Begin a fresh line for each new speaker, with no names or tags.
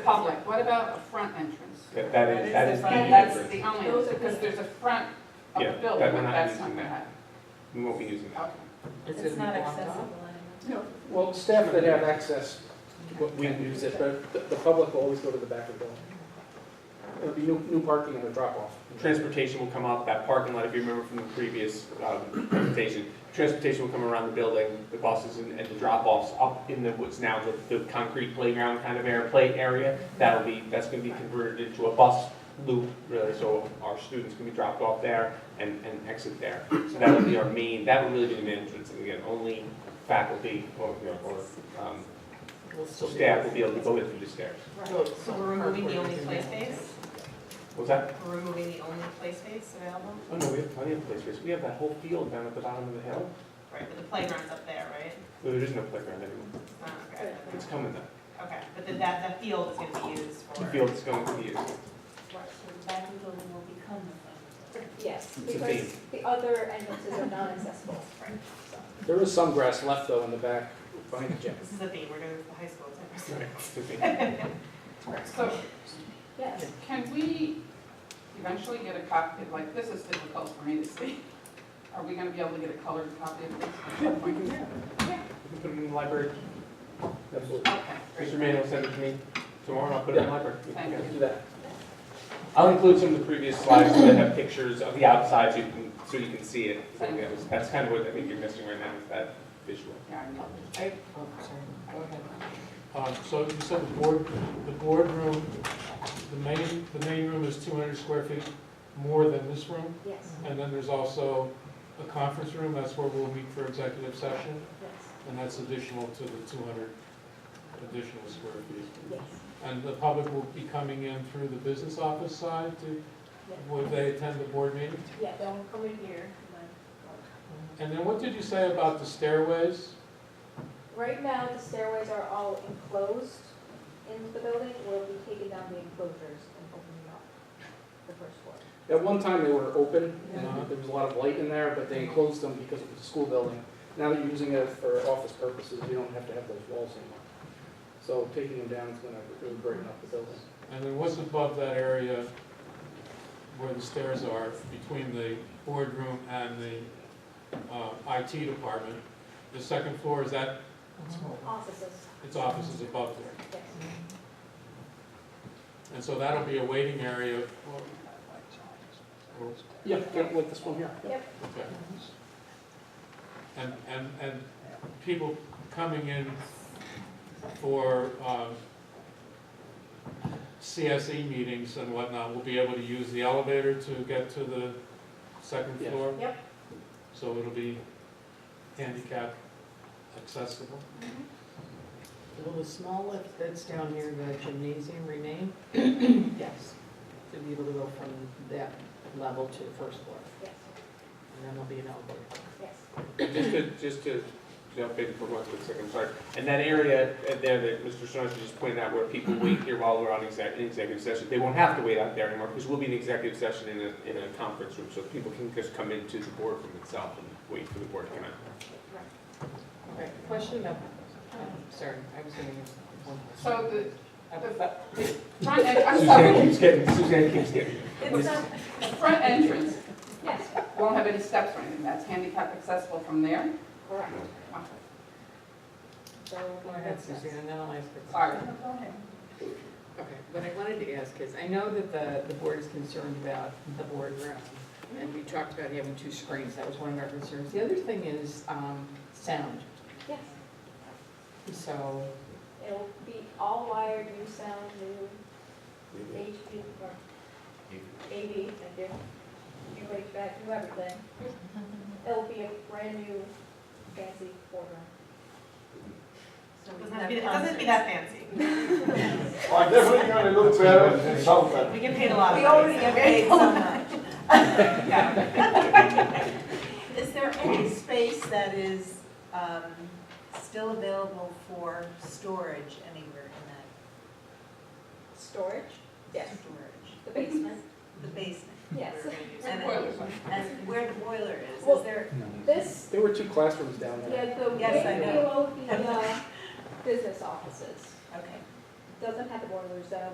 public, what about a front entrance?
That that is, that is the
That- That's the
difference.
only,
Those are the-
because there's a front of
Yeah,
the building,
that we're
but
not
that's not
using
gonna
that.
happen.
We won't be using that.
It's not accessible anymore.
Well, staff that have access, w- we
Can
use it, but the, the public will always go to the back of the building. It'll be new, new parking and a drop off.
Transportation will come up, that parking lot, if you remember from the previous um, presentation, transportation will come around the building, the buses and and the drop-offs up in the, what's now the, the concrete playground kind of air, play area. That'll be, that's gonna be converted into a bus loop, really, so our students can be dropped off there and, and exit there. So that would be our main, that would really be the main entrance, and again, only faculty or, you know, or, um, staff will be able to go in through the stairs.
So we're removing the only play space?
What's that?
We're removing the only play space available?
Oh, no, we have plenty of play space. We have that whole field down at the bottom of the hill.
Right, but the playground's up there, right?
Well, There is no playground anymore.
It's not, okay.
It's coming though.
Okay, but then that, that field is gonna be used for.
The field's going to be used.
Right, so the back of the building will become the front.
Yes,
It's a
because the other entrances are non-accessible.
There is some grass left though in the back behind the gym.
This is the theme, we're doing this for high school, it's
Right. It's a field.
So
Yes.
Can we eventually get a copy, like, this is difficult for me to see. Are we gonna be able to get a colored copy of this? at some
We
point?
can, yeah. We can put it in the library. Absolutely.
Okay, great.
Mr. Manuel send it to me tomorrow and I'll put it in the library. We can
Thank
get it.
Do that.
I'll include some of the previous slides that have pictures of the outside so you can, so you can see it. So that was- That's kind of what I think you're missing right now is that visual.
Yeah, I know.
oh,
Um, So you said the board, the boardroom, the main, the main room is 200 square feet more than this room?
Yes,
And then there's also a conference room, that's where we'll meet for executive session,
yes,
and that's additional to the 200 additional square feet.
yes,
And the public will be coming in through the business office side to,
yes.
would they attend the board meeting?
Yeah, they'll come in here. and then-
And then what did you say about the stairways?
Right now, the stairways are all enclosed into the building. We'll be taking down the enclosures and opening up the first floor.
At one time, they were open, and uh, there was a lot of light in there, but they enclosed them because it was a school building. Now that you're using it for office purposes, you don't have to have those walls anymore. So taking them down is gonna really brighten up the building.
And then what's above that area where the stairs are between the boardroom and the uh, IT department? The second floor, is that,
Mhm.
Offices,
its office is above there.
yes.
And so that'll be a waiting area. or-
Yeah, yeah, like this one here. yeah.
Yep.
okay. And, and, and people coming in for um, CSE meetings and whatnot will be able to use the elevator to get to the second
Yeah.
floor?
Yep.
So it'll be handicap accessible?
Will the small lift that's down here in the gymnasium remain? Yes. To be able to go from that level to the first floor,
Yes,
and then there'll be an elevator.
yes.
And Just to, just to jump in for one quick second, sorry. And that area uh, there that Mr. Sorensen just pointed out where people wait here while we're on exec- in executive session, they won't have to wait out there anymore because we'll be in executive session in a, in a conference room. So people can just come into the boardroom itself and wait for the board to come out.
Okay, question about, um, sorry, I was gonna ask one
So the,
question.
Front, en- I'm
Suzanne
sorry,
keeps getting, Suzanne keeps getting.
It's not,
the front entrance
Yes,
won't have any steps or anything, that's handicap accessible from there?
correct.
Wow.
So.
Go ahead, Suzanne, and then I'll ask the
Sorry.
Okay, what I wanted to ask is, I know that the, the board is concerned about the boardroom, and we talked about having two screens, that was one of our concerns. The other thing is, um, sound,
Yes,
so
it'll be all wired, new sound, new HP, or AV, thank you. New HVAC, new everything. It'll be a brand new fancy boardroom.
So it doesn't have to be, it doesn't have to be that fancy.
I definitely gonna look better in South Bend.
We can pay a lot of money.
so much.
Is there any space that is um, still available for storage anywhere in
Storage?
that
Yes.
storage?
The basement?
The basement?
Yes.
we're gonna use.
Where
And-
the boilers are.
And where the boiler is,
Well-
is there,
This,
There were two classrooms down there.
yeah, the way
Yes, I know.
below the uh, business offices,
okay.
doesn't have the boilers though,